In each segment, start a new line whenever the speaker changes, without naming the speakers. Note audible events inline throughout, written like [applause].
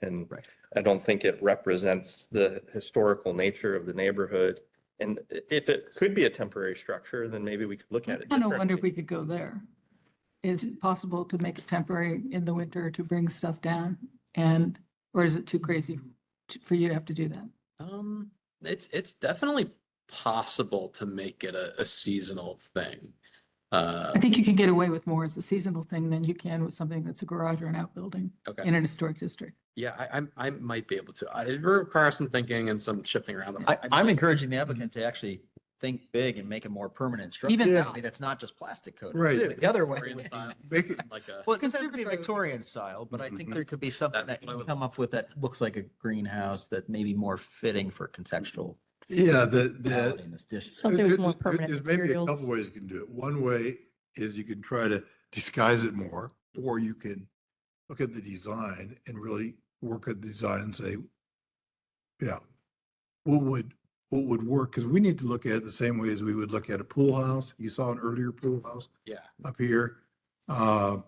And
Right.
I don't think it represents the historical nature of the neighborhood. And i- if it could be a temporary structure, then maybe we could look
I
at it.
kind of wonder if
differently.
we could go there. Is it possible to make it temporary in the winter to bring stuff down? And, or is it too crazy to- for you to have to do that?
Um, it's, it's definitely possible to make it a, a seasonal thing. Uh,
I think you can get away with more as a seasonal thing than you can with something that's a garage or an outbuilding
okay,
in an historic district.
yeah, I, I'm- I, I might be able to. I, it requires some thinking and some shifting around.
I, mm-hmm.
I
I'm
might-
encouraging the applicant to actually think big and make a more permanent structure.
Even
I
now.
mean, That's not just plastic coating.
Right.
Do it The other way.
Victorian style,
Make it-
Like a,
[laughs] Well, it doesn't have to be
Conservatory.
Victorian style, but I think
Mhm.
there could be something
That's
that
what I
you
would-
come up with that looks like a greenhouse that may be more fitting for contextual
Yeah, the, the.
reality in this dish.
Something with
there-
more
there-
permanent
There's maybe a
materials.
couple ways you can do it. One way is you can try to disguise it more, or you can look at the design and really work at the design and say, you know, what would, what would work? Because we need to look at it the same way as we would look at a pool house. You saw an earlier pool house
yeah,
up here, uh,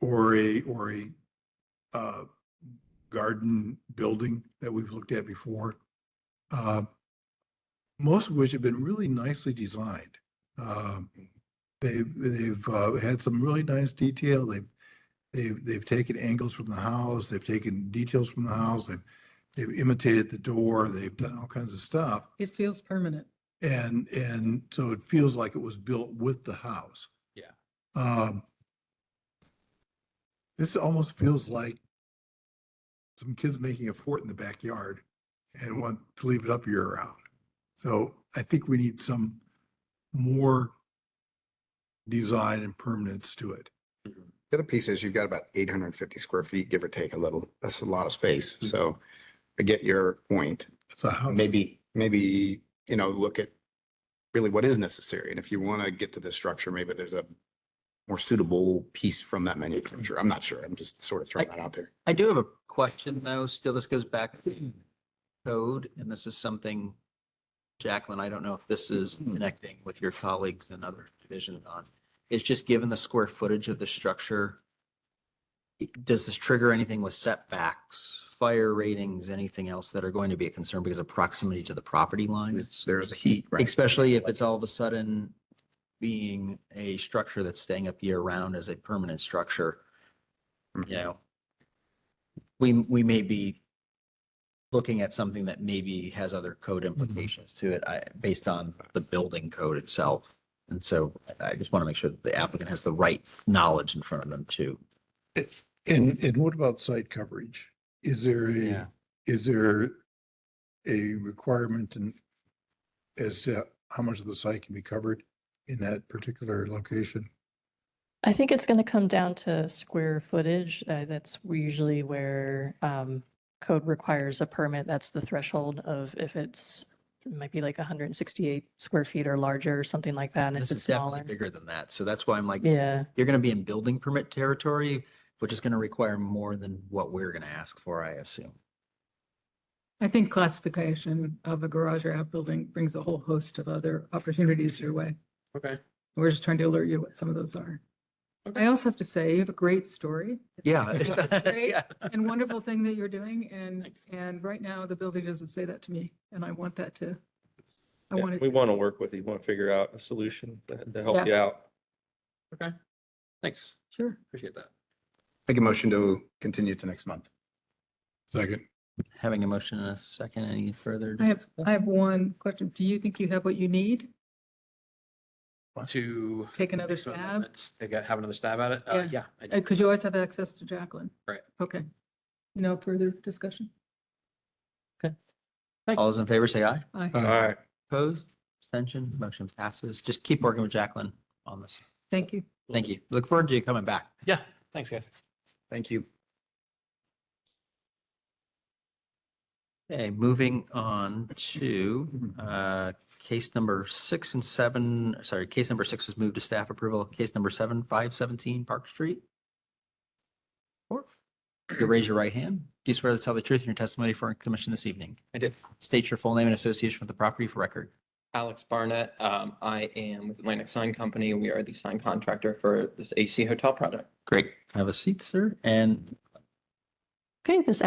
or a, or a, uh, garden building that we've looked at before. Uh, most of which have been really nicely designed. Um, they've, they've, uh, had some really nice detail. They've, they've, they've taken angles from the house. They've taken details from the house. They've, they've imitated the door. They've done all kinds of stuff.
It feels permanent.
And, and so it feels like it was built with the house.
Yeah.
Um, this almost feels like some kids making a fort in the backyard and want to leave it up year round. So I think we need some more design and permanence to it.
The other piece is you've got about eight hundred and fifty square feet, give or take a little. That's a lot of space. So I get your point.
So how,
Maybe, maybe, you know, look at really what is necessary. And if you want to get to this structure, maybe there's a more suitable piece from that manufacturer. I'm not sure. I'm just sort of throwing
I-
that out there.
I do have a question though, still, this goes back to code, and this is something, Jacqueline, I don't know if this is connecting with your colleagues and other divisions on, is just given the square footage of the structure, it- does this trigger anything with setbacks, fire ratings, anything else that are going to be a concern because of proximity to the property lines?
There's a heat, right?
Especially if it's all of a sudden being a structure that's staying up year round as a permanent structure, you know. We, we may be looking at something that maybe has other code implications to it, I, based on the building code itself. And so I I just want to make sure that the applicant has the right knowledge in front of them too.
and, and what about site coverage? Is there a,
Yeah.
is there a requirement in as to how much of the site can be covered in that particular location?
I think it's going to come down to square footage. Uh, that's usually where um, code requires a permit. That's the threshold of if it's it might be like 168 square feet or larger or something like that. And if
This
it's
is definitely
smaller,
bigger than that. So that's why I'm like,
yeah,
you're going to be in building permit territory, which is going to require more than what we're going to ask for, I assume.
I think classification of a garage or outbuilding brings a whole host of other opportunities your way.
okay.
We're just trying to alert you what some of those are. I also have to say, you have a great story
Yeah.
Great.
[laughs] Yeah.
and wonderful thing that you're doing. And,
Thanks.
and right now the building doesn't say that to me and I want that to, I
Yeah,
want
We
it.
want to work with you, want to figure out a solution to- to help
Yeah.
you out.
Thanks.
Sure.
Appreciate that.
Make a motion to continue to next month.
Second.
[laughs] Having a motion in a second, any further?
I have, I have one question. Do you think you have what you need?
To.
Take another
So
stab?
let's Take a, have another stab at it. Uh,
Yeah.
yeah. I do.
Because you always have access to Jacqueline.
Right.
Okay. No further discussion?
All those in favor say aye.
Aye.
All right.
Opposed, abstention, motion passes. Just keep working with Jacqueline on this.
Thank you.
Thank you. Look forward to you coming back.
Yeah, thanks, guys.
Thank you.
Okay, moving on to uh, case number six and seven, sorry, case number six was moved to staff approval. Case number seven, five seventeen Park Street. Or, You raise your right hand. Do you swear to tell the truth in your testimony for our commission this evening?
I did.
State your full name and association with the property for record.
Alex Barnett. Um, I am with Atlantic Sign Company. We are the sign contractor for this AC hotel project.
Great. Have a seat, sir, and
okay. This